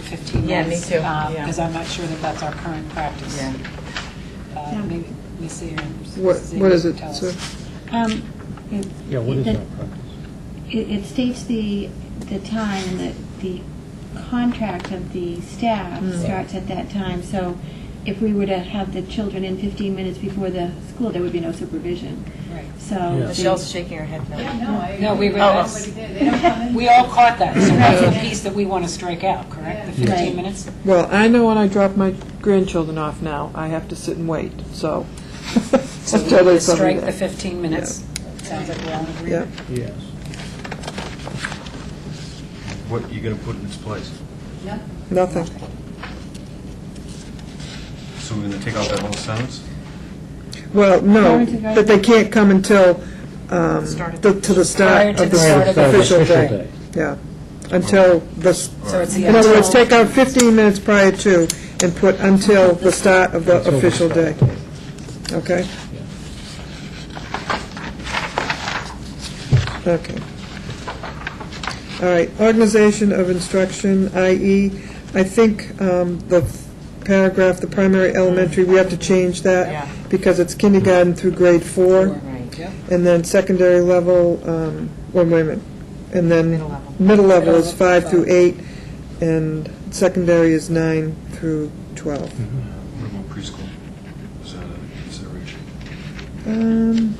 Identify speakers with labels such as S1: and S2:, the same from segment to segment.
S1: 15 months.
S2: Yeah, me too, yeah.
S1: Because I'm not sure that that's our current practice.
S2: Yeah.
S1: Uh, Maybe Ms. Seer and
S3: What,
S1: Mrs.
S3: what is
S1: Ziegler can
S3: it,
S1: tell us.
S3: sir?
S4: Um, it-
S5: Yeah, what is
S4: it-
S5: our practice?
S4: It it states the, the time, and the, the contract of the staff starts at that time, so if we were to have the children in 15 minutes before the school, there would be no supervision,
S1: Right.
S4: so.
S5: Yeah.
S4: the-
S2: Michelle's shaking her head no.
S6: No, I.
S1: No, we
S2: Oh.
S1: realized, we all caught that, so that's the piece that we want to strike out, correct? The 15
S4: Right.
S1: minutes?
S3: Well, I know when I drop my grandchildren off now, I have to sit and wait, so.
S1: So we
S3: Until
S1: want
S3: they
S1: to
S3: tell me
S1: strike the
S3: that.
S1: 15 minutes. Sounds like we're all in
S3: Yeah.
S1: agreement.
S5: Yes.
S7: What you going to put in its place?
S3: Nothing.
S7: So we're going to take out that whole sentence?
S3: Well, no,
S4: Parents are very-
S3: but they can't come until, um,
S2: Start of-
S3: the- to the
S1: Prior
S3: start
S1: to
S3: of
S1: the start
S3: the
S1: of the
S3: official day. Yeah, until the, s-
S1: So it's the
S3: in other words,
S1: until,
S3: take out 15 minutes prior to and put until the start of the
S5: Until the
S3: official day.
S5: start.
S3: Okay? Okay. All right, organization of instruction, i.e., I think um, the paragraph, the primary elementary, we have to change
S2: Yeah.
S3: that because it's kindergarten through grade four,
S2: Right.
S1: Yep.
S3: and then secondary level, um, well, wait a minute, and then...
S2: Middle level.
S3: Middle level is
S1: Middle level,
S3: five through eight, and secondary is nine through 12.
S5: Mm-hmm.
S7: What about preschool? Is that a consideration?
S3: Um,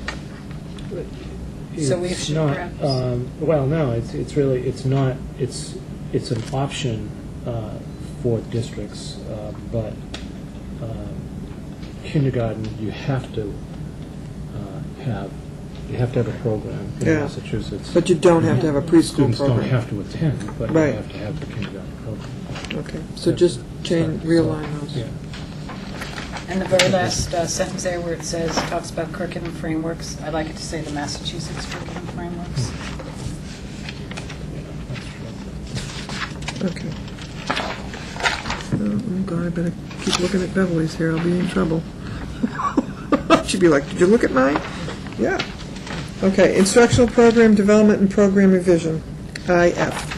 S1: So we
S5: It's
S1: should
S5: not,
S1: perhaps-
S5: um, Well, no, it's, it's really, it's not, it's, it's an option uh, for districts, uh, but um, kindergarten, you have to uh, have, you have to have a program in
S3: Yeah.
S5: Massachusetts.
S3: But you don't have to have a preschool
S5: Students don't
S3: program.
S5: have to attend, but you
S3: Right.
S5: have to have the kindergarten program.
S3: Okay, so just change, realign those.
S5: Yeah.
S1: And the very last uh, sentence there where it says, talks about curriculum frameworks, I'd like it to say the Massachusetts curriculum frameworks.
S3: Okay. Oh, I'm glad I better keep looking at Beverly's here, I'll be in trouble. She'd be like, did you look at mine? Yeah. Okay, instructional program development and program revision, IF.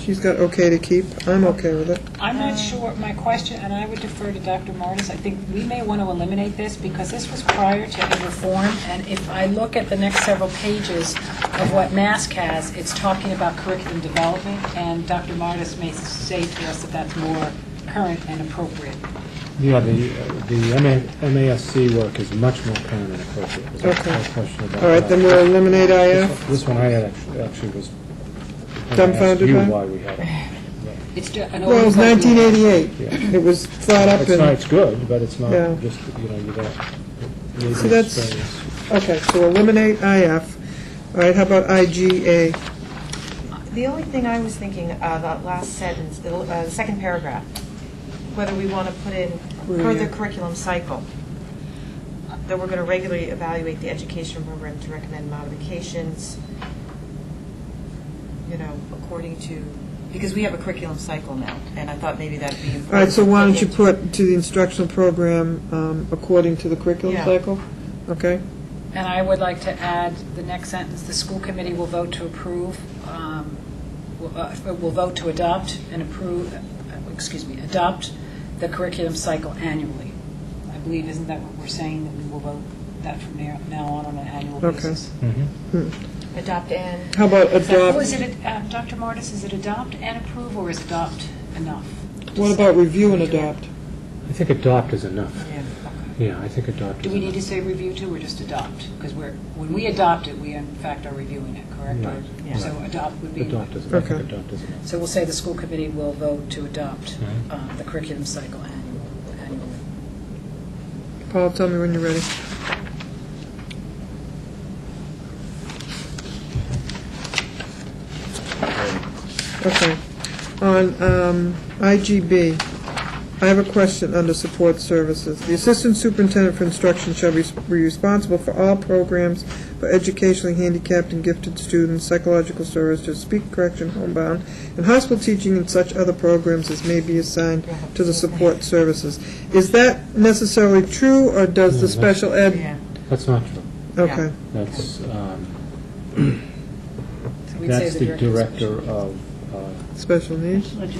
S3: She's got okay to keep, I'm okay with it.
S1: I'm not sure, my question, and I would defer to Dr. Martis, I think we may want to eliminate this because this was prior to the reform, and if I look at the next several pages of what MASC has, it's talking about curriculum development, and Dr. Martis may say to us that that's more current and appropriate.
S5: Yeah, the, uh, the MA MASC work is much more current and appropriate. There's no-
S3: Okay.
S5: no question about
S3: All right,
S5: that.
S3: then we'll eliminate
S5: This-
S3: IF.
S5: This one I had actu- actually was. I
S3: Dumbfounded
S5: asked
S3: by?
S5: you why we had it.
S1: It's ju- an
S3: Well, it was
S1: overview.
S3: 1988. It was thought up
S5: It's not,
S3: in,
S5: it's good, but it's not
S3: Yeah.
S5: just, you know, you got.
S3: So that's- okay, so eliminate IF. All right, how about IGA?
S2: The only thing I was thinking, uh, that last sentence, the l- uh, the second paragraph, whether we want to put in
S3: Where
S2: per
S3: you-
S2: the curriculum cycle, that we're going to regularly evaluate the education program to recommend modifications, you know, according to, because we have a curriculum cycle now, and I thought maybe that'd be important.
S3: All right, so why
S2: to
S3: don't you
S2: look into.
S3: put to the instructional program um, according to the curriculum
S2: Yeah.
S3: cycle? Okay?
S1: And I would like to add the next sentence, the school committee will vote to approve, um, will uh, will vote to adopt and approve, uh, excuse me, adopt the curriculum cycle annually. I believe, isn't that what we're saying, that we will vote that from now now on on an annual
S3: Okay.
S1: basis?
S5: Mm-hmm.
S2: Adopt and,
S3: Hmm. How about
S1: Or is
S3: adopt,
S1: it, uh, Dr. Martis, is it adopt and approve, or is adopt enough?
S3: what about review and adopt?
S5: I think adopt is enough.
S2: yeah,
S5: Yeah, I think adopt
S1: Do
S5: is
S1: we need
S5: enough.
S1: to say review too, or just adopt? Because we're, when we adopt it, we in fact are reviewing it, correct? Or-
S5: Right.
S2: Yeah.
S1: So adopt would be.
S5: Adopt is, I think
S3: Okay.
S5: adopt is enough.
S1: So we'll say the school committee will vote to adopt
S5: Mhm.
S1: uh, the curriculum cycle annual- annually.
S3: Paul, tell me when you're ready. Okay. On um, IGB, I have a question under support services. The assistant superintendent for instruction shall be be responsible for all programs for educationally handicapped and gifted students, psychological services, speech correction, homebound, and hospital teaching and such other programs as may be assigned to the support services. Is that necessarily true, or does the
S5: No, that's-
S3: special
S2: yeah.
S3: ed?
S5: That's not true.
S3: Okay,
S5: That's, um,
S1: So we'd say
S5: that's the
S1: director's-
S5: director of uh,
S3: special needs?
S4: Legislation.